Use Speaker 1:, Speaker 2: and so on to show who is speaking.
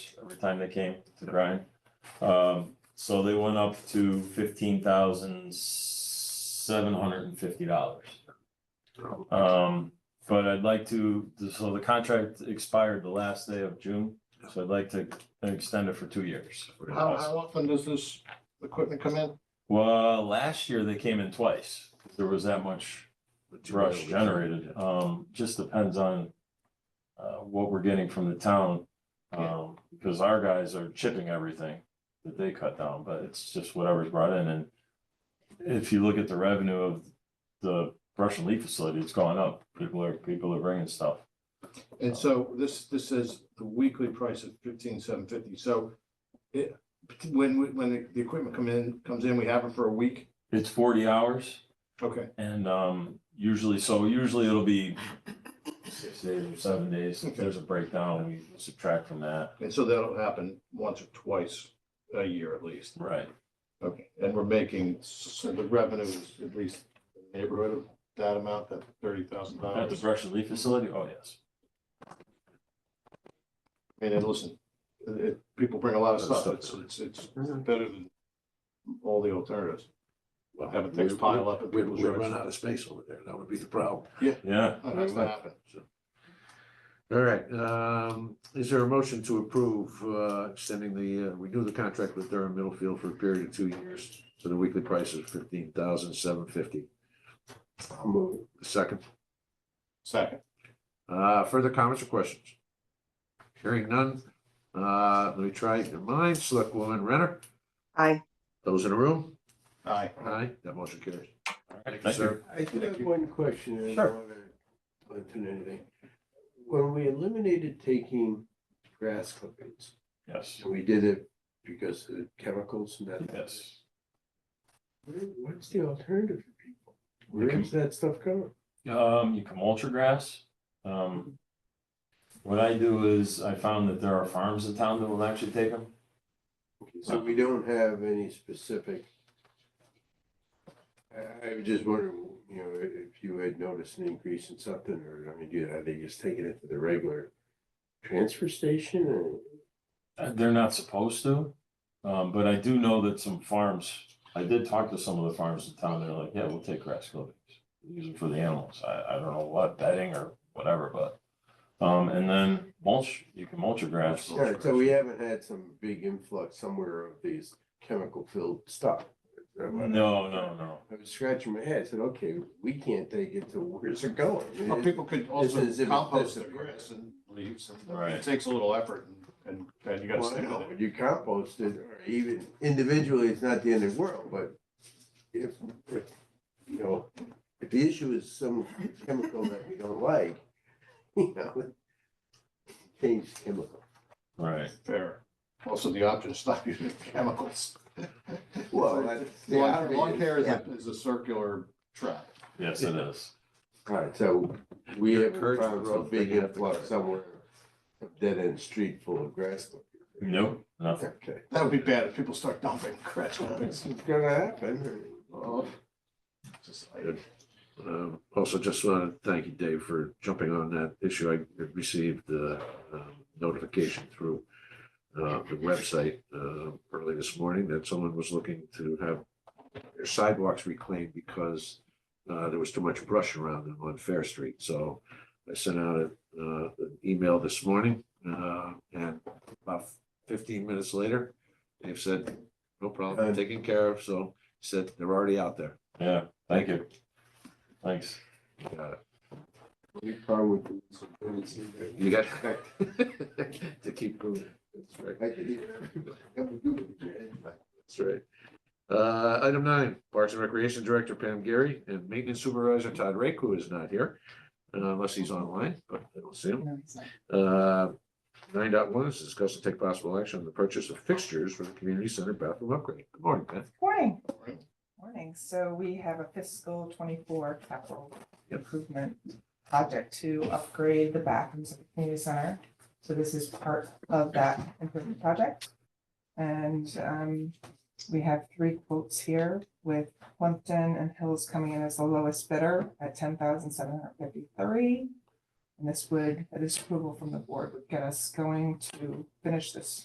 Speaker 1: every time they came to grind. Um, so they went up to fifteen thousand seven hundred and fifty dollars. Um, but I'd like to, so the contract expired the last day of June, so I'd like to extend it for two years.
Speaker 2: How, how often does this equipment come in?
Speaker 1: Well, last year they came in twice. There was that much brush generated. Um, just depends on uh, what we're getting from the town. Um, because our guys are chipping everything that they cut down, but it's just whatever's brought in and if you look at the revenue of the brush and leaf facility, it's gone up. People are, people are bringing stuff.
Speaker 2: And so this, this is the weekly price of fifteen, seven fifty, so it, when, we- when the, the equipment come in, comes in, we have it for a week?
Speaker 1: It's forty hours.
Speaker 2: Okay,
Speaker 1: And um, usually, so usually it'll be six days or seven days. If there's a breakdown, we subtract from that.
Speaker 2: and so that'll happen once or twice a year at least.
Speaker 1: Right.
Speaker 2: Okay, and we're making, so the revenue is at least in the neighborhood of that amount, that thirty thousand
Speaker 1: At the
Speaker 2: dollars.
Speaker 1: brush and leaf facility, oh, yes.
Speaker 2: And then listen, it- it- people bring a lot of
Speaker 1: That's
Speaker 2: stuff, it's, it's, it's
Speaker 3: Mhm.
Speaker 2: better than all the alternatives. Have a
Speaker 3: things
Speaker 2: things pile up at
Speaker 3: We,
Speaker 2: people's
Speaker 3: we run
Speaker 2: yards.
Speaker 3: out of space over there, that would be the problem.
Speaker 1: Yeah.
Speaker 2: Oh, That's what happened.
Speaker 3: All right, um, is there a motion to approve, uh, extending the, uh, renew the contract with Durham Middlefield for a period of two years? So the weekly price is fifteen thousand seven fifty. Second,
Speaker 2: Second.
Speaker 3: uh, further comments or questions? Hearing none, uh, let me try your mind, Selectwoman Renner,
Speaker 4: Aye.
Speaker 3: those in the room?
Speaker 2: Aye.
Speaker 3: Aye, that motion carries. Thank you,
Speaker 1: Thank you.
Speaker 3: sir.
Speaker 5: I do
Speaker 2: Thank
Speaker 5: have
Speaker 2: you.
Speaker 5: one question. and I
Speaker 1: Sure.
Speaker 5: don't wanna put in anything. When we eliminated taking grass clippings,
Speaker 1: Yes.
Speaker 5: and we did it because of the chemicals and that.
Speaker 1: Yes.
Speaker 5: what- What's the alternative for people? Where is that stuff going?
Speaker 1: Um, you can mulch your grass. Um, what I do is I found that there are farms in town that will actually take them.
Speaker 5: Okay, So we don't have any specific. I, I was just wondering, you know, if you had noticed an increase in something, or, I mean, do- are they just taking it to the regular transfer station or?
Speaker 1: Uh, They're not supposed to, um, but I do know that some farms, I did talk to some of the farms in town, they're like, yeah, we'll take grass clippings. Use it for the animals, I, I don't know what, bedding or whatever, but, um, and then mulch, you can mulch your grass.
Speaker 5: All right, so we haven't had some big influx somewhere of these chemical filled stuff.
Speaker 1: No, no, no,
Speaker 2: Mm-hmm.
Speaker 5: I was scratching my head, I said, okay, we can't take it, so where's it going?
Speaker 2: Well, people could also
Speaker 5: is- if it's
Speaker 2: compost their
Speaker 5: this-
Speaker 2: grass and leaves, and
Speaker 1: Right.
Speaker 2: it takes a little effort and, and, and you gotta
Speaker 5: Well, I
Speaker 2: stick
Speaker 5: know,
Speaker 2: with it.
Speaker 5: When you compost it, or even individually, it's not the end of the world, but if, if, you know, if the issue is some chemical that we don't like, you know, change chemical.
Speaker 1: right,
Speaker 2: Fair. Also, the option is stop using chemicals.
Speaker 5: Well, that's the
Speaker 2: Lawn lawn
Speaker 5: obvious.
Speaker 2: care is a, is a circular trap.
Speaker 1: yes, it is.
Speaker 5: All right, so we
Speaker 3: Your
Speaker 5: have
Speaker 3: curb
Speaker 5: found some
Speaker 3: growth,
Speaker 5: big
Speaker 3: you have to
Speaker 5: influx
Speaker 3: cut.
Speaker 5: somewhere, a dead end street full of grass.
Speaker 1: Nope, nothing,
Speaker 5: Okay.
Speaker 2: That would be bad if people start dumping grass.
Speaker 5: It's gonna happen.
Speaker 2: Oh. Just like-
Speaker 3: Um, also just want to thank you, Dave, for jumping on that issue. I received the um, notification through uh, the website uh, early this morning that someone was looking to have their sidewalks reclaimed because uh, there was too much brush around them on Fair Street. So I sent out a, uh, an email this morning uh, and about fifteen minutes later, they've said, no problem,
Speaker 5: Good.
Speaker 3: taken care of. So he said, they're already out there.
Speaker 1: yeah, thank you. Thanks.
Speaker 3: Got it.
Speaker 5: We probably do some things in there.
Speaker 3: You got to keep moving. That's right.
Speaker 5: I could even- I could do it.
Speaker 3: That's right. Uh, item nine, Parks and Recreation Director Pam Gary and Maintenance Supervisor Todd Rake, who is not here, uh, unless he's online, but I don't see him. Uh, nine dot one is discuss and take possible action on the purchase of fixtures for the community center bathroom upgrade. Good morning, Pam.
Speaker 6: Morning. Morning. So we have a fiscal twenty-four capital improvement project to upgrade the bathrooms at the community center. So this is part of that improvement project. And um, we have three quotes here with Plumpton and Hills coming in as the lowest bidder at ten thousand seven hundred fifty-three. And this would, this approval from the board would get us going to finish this